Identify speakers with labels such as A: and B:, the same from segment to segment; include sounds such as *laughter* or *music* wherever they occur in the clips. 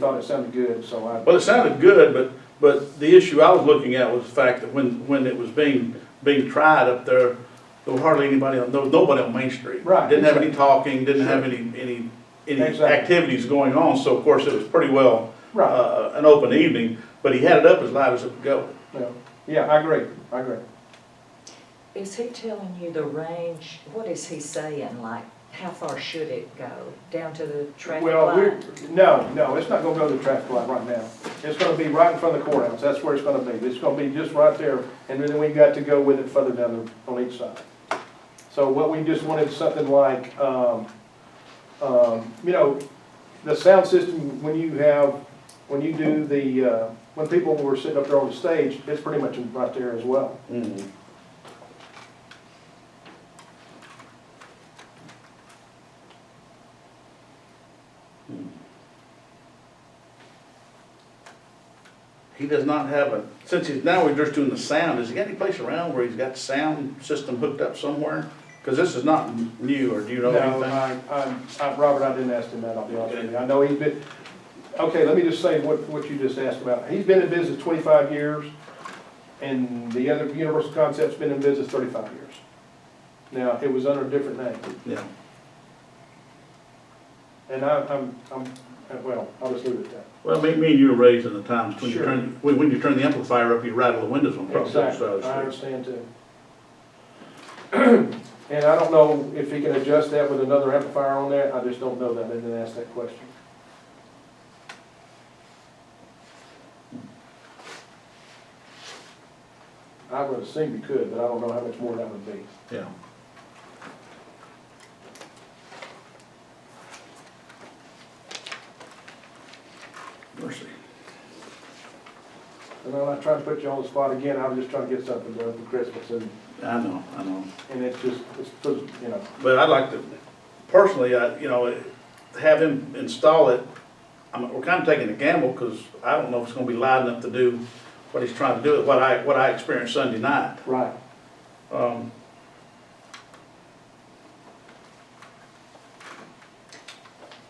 A: Thought it sounded good, so I.
B: Well, it sounded good, but, but the issue I was looking at was the fact that when, when it was being, being tried up there, there was hardly anybody, on there was nobody on Main Street.
A: Right.
B: Didn't have any talking, didn't have any, any, any
A: Exactly.
B: activities going on, so of course it was pretty well,
A: Right,
B: uh, an open evening, but he had it up as loud as it could go.
A: yeah, yeah, I agree, I agree.
C: Is he telling you the range, what is he saying, like, how far should it go? Down to the traffic
A: Well, we're,
C: light?
A: no, no, it's not gonna go to the traffic light right now. It's gonna be right in front of the courthouse, that's where it's gonna be. It's gonna be just right there, and then we got to go with it further down the, on each side. So what we just wanted, something like, um, um, you know, the sound system, when you have, when you do the, uh, when people were sitting up there on the stage, it's pretty much right there as well.
B: Mm-hmm. He does not have a, since he's, now we're just doing the sound, has he got any place around where he's got sound system hooked up somewhere? Because this is not new, or do you know
A: No,
B: anything?
A: I, I, I- Robert, I didn't ask him that, I'll be honest with you. I know he's been, okay, let me just say what, what you just asked about. He's been in business twenty-five years, and the other Universal Concept's been in business thirty-five years. Now, it was under a different name,
B: Yeah.
A: and I, I'm, I'm, well, I'll just leave it at
B: Well, me, me and you were raised in the times when you
A: Sure.
B: turn, when, when you turn the amplifier up, you rattle the windows on
A: that.
B: folks. on the side of
A: Exactly, I
B: the street.
A: understand too. *clears throat* And I don't know if he can adjust that with another amplifier on there, I just don't know that, I didn't ask that question. I would assume you could, but I don't know how much more that would be.
B: Yeah. Mercy.
A: And I'm not trying to put you on the spot again, I was just trying to get something done for Christmas, and,
B: I know, I know.
A: and it's just, it's, you know,
B: But I'd like to, personally, I, you know, have him install it. I'm, we're kind of taking a gamble because I don't know if it's gonna be loud enough to do what he's trying to do, what I, what I experienced Sunday night.
A: right.
B: Um,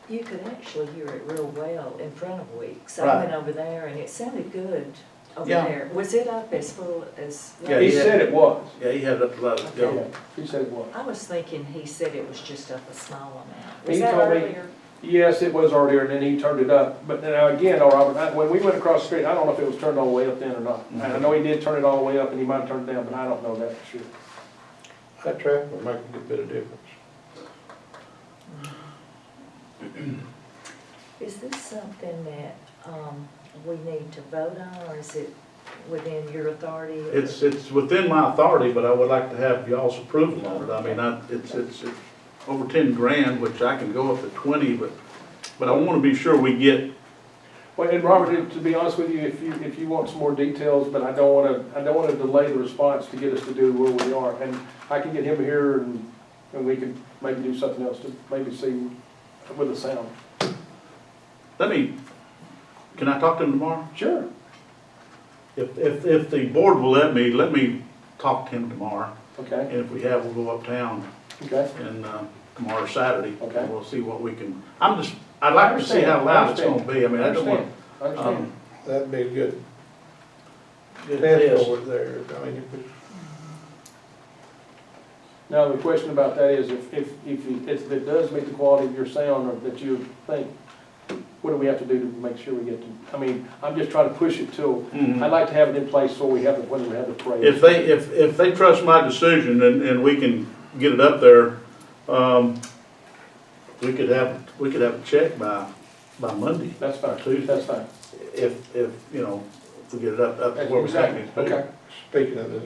C: You could actually hear it real well in front of Weeks. I
B: Right.
C: went over there and it sounded good over
B: Yeah.
C: there. Was it up as full as?
B: Yeah,
A: He
B: he had-
A: said it was,
B: yeah, he had it up to let it
A: yeah,
B: go.
A: he said it was.
C: I was thinking he said it was just up a small amount.
A: He
C: Was that
A: told me-
C: earlier?
A: Yes, it was earlier, and then he turned it up, but now again, all Robert, I- when we went across the street, I don't know if it was turned all the way up then or not. And I know he did turn it all the way up, and he might have turned it down, but I don't know that for sure.
D: That traffic would make a good bit of difference.
C: Is this something that, um, we need to vote on or is it within your authority?
B: It's, it's within my authority, but I would like to have y'all's approval on it. I mean, I, it's, it's it's over ten grand, which I can go up to twenty, but, but I wanna be sure we get,
A: Well, and Robert, to- to be honest with you, if you, if you want some more details, but I don't wanna, I don't wanna delay the response to get us to do where we are. And I can get him here, and, and we could maybe do something else to maybe see with the sound.
B: let me, can I talk to him tomorrow?
A: Sure.
B: If, if, if the board will let me, let me talk to him tomorrow,
A: Okay,
B: and if we have, we'll go uptown
A: okay,
B: and, uh, tomorrow or Saturday. and
A: Okay.
B: We'll see what we can, I'm just, I'd like to see how
A: I
B: loud it's
A: understand.
B: gonna be, I
A: I
B: mean, I don't
A: understand,
B: want.
A: I understand.
B: um,
D: That'd be a good
B: good
D: test
B: test.
D: over there. I mean, if we-
A: Now, the question about that is if, if, if you- if it does meet the quality of your sound or that you think, what do we have to do to make sure we get to, I mean, I'm just trying to push it till,
B: Mhm.
A: I'd like to have it in place so we have, the when we have the parade.
B: If they, if, if they trust my decision and, and we can get it up there, um, we could have, we could have a check by, by Monday.
A: That's fine,
B: Tuesday.
A: that's fine.
B: If, if, you know, if we get it up, up to where we think
A: Exactly.
B: it's.
A: Okay.
D: speaking of the,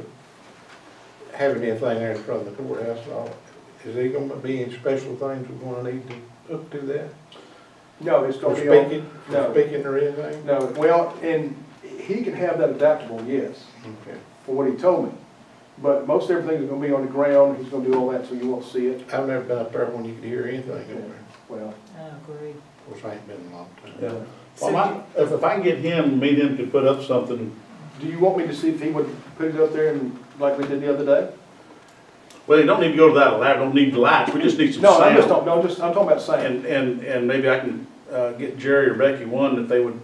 D: having anything there in front of the courthouse and all, is there gonna be any special things we're gonna need to hook to that?
A: No, it's
D: For
A: gonna be on,
D: speaking,
A: no.
D: for speaking or anything?
A: no, well, and he can have that adaptable, yes,
D: Okay.
A: for what he told me. But most everything is gonna be on the ground, he's gonna do all that, so you won't see it.
D: I've never been up there when you could hear anything over there.
A: Well, uh,
C: I agree.
D: Of course, I ain't been in a long time.
B: Yeah. Well, my, if, if I can get him, me and him could put up something,
A: do you want me to see if he would put it up there and, like we did the other day?
B: well, they don't need to go to that, elaborate. don't need lights, we just need some
A: No, I just
B: sound.
A: don't, no, just, I'm talking about sound.
B: And, and, and maybe I can uh, get Jerry or Becky one, that they would